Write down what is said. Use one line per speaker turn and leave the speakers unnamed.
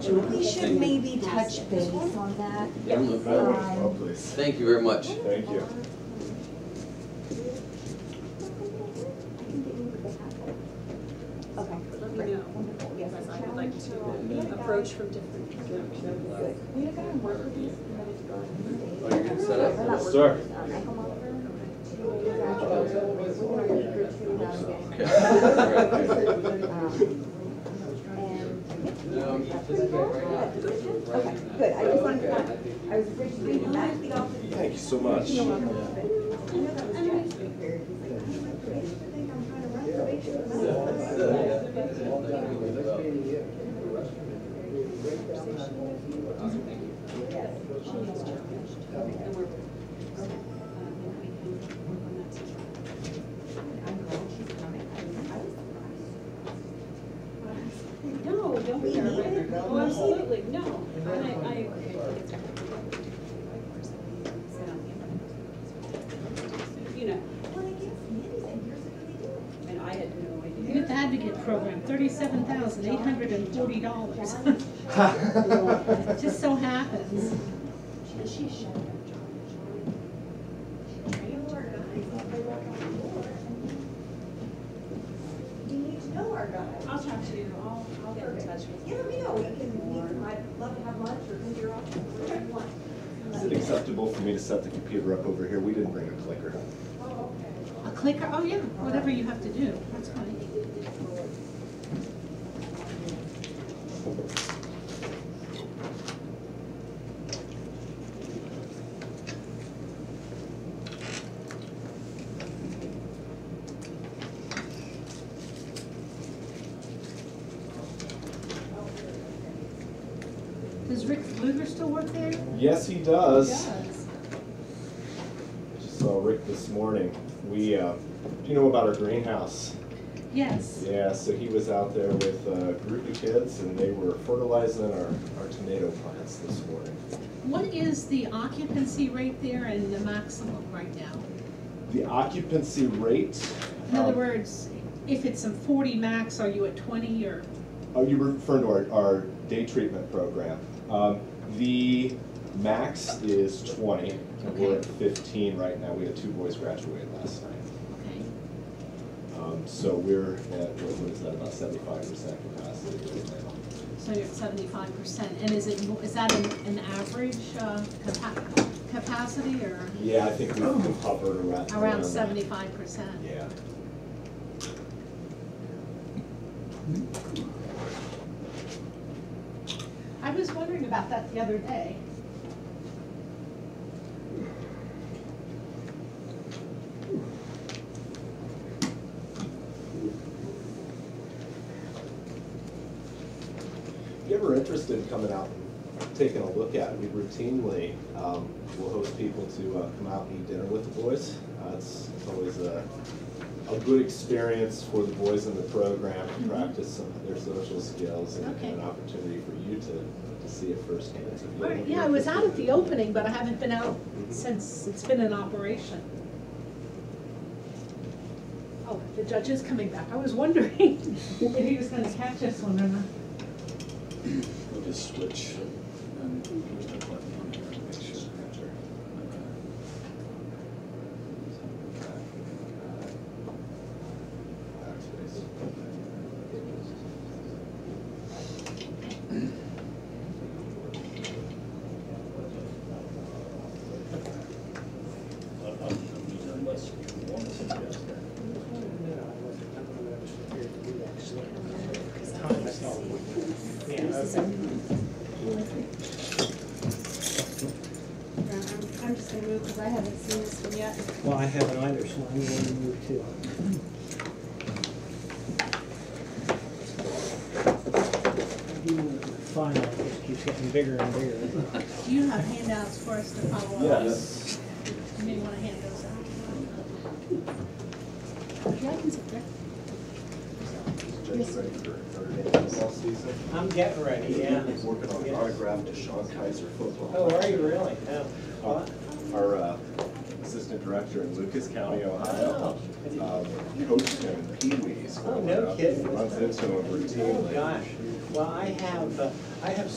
June, we should maybe touch base on that.
Yeah.
Um,
Oh, please.
Thank you very much.
Thank you.
Okay.
Let me know, because I would like to approach from different directions.
Oh, you're getting set up?
Yes, sir.
Okay. All right.
um,
No, I'm just physically right now.
Okay, good, I just wanted to, I was afraid to bring back the office.
Thank you so much.
I'm glad she's coming. I was- I was surprised.
No, don't be arrogant. Oh, absolutely, no. And I, I agree. You know,
Well, they give us minis and here's what they do.
and I had no
Youth
idea.
Advocate Program, thirty-seven thousand eight hundred and forty dollars. Just so happens.
And she showed up, John.
You need to know our
and
guys.
I'll talk to you, I'll, I'll get in touch with
Yeah,
you.
let me know, we can, we can, I'd love to have lunch or come to your office, whatever you want.
Is it acceptable for me to set the computer up over here? We didn't bring a clicker.
A clicker, oh yeah, whatever you have to do, that's fine. Does Rick Luger still work there?
Yes, he does. Just saw Rick this morning. We, uh, do you know about our greenhouse?
Yes.
Yeah, so he was out there with a group of kids and they were fertilizing our, our tomato plants this morning.
What is the occupancy rate there and the maximum right now?
The occupancy rate.
In other
um,
words, if it's a forty max, are you at twenty or?
Oh, you referring to our, our day treatment program. Um, the max is twenty, and we're at fifteen right now. We had two boys graduate last night.
Okay.
Um, so we're at, what what is that, about seventy-five percent capacity right now.
So you're at seventy-five percent, and is it, mo- is that an, an average, uh, capa- capacity or
Yeah, I think we've hovered around.
around seventy-five percent?
Yeah.
I was wondering about that the other day.
If you're ever interested in coming out and taking a look at it, we routinely um, will host people to uh, come out and eat dinner with the boys. Uh, It's it's always a, a good experience for the boys in the program to practice some of their social skills and and an
Mm-hmm. Okay.
opportunity for you to, to see it firsthand. if you
Alright,
haven't
Yeah, I
been.
was out at the opening, but I haven't been out since it's been in operation. Oh, the judge is coming back. I was wondering if he was gonna catch us one or not.
We'll just switch and push that button on here and make sure. Okay.
Backspace.
Uh, uh, Unless you want to suggest that.
I'm just gonna move because I haven't seen this one yet.
Well, I haven't either, so I'm going to move too. Final, it just keeps getting bigger and bigger.
Do you have handouts for us to follow up?
Yes.
You may wanna hand those out.
Yeah, I can sit there.
Just ready for Notre Dame football season.
I'm getting ready, yeah.
Working on an
Yes.
autograph to Sean Kaiser football.
Oh, are you really? Yeah.
Uh, Our uh, assistant director in Lucas County, Ohio, um, coached him in Pee Wees.
Oh, no kidding.
Runs into him
Oh,
routinely.
gosh. Well, I have, uh, I have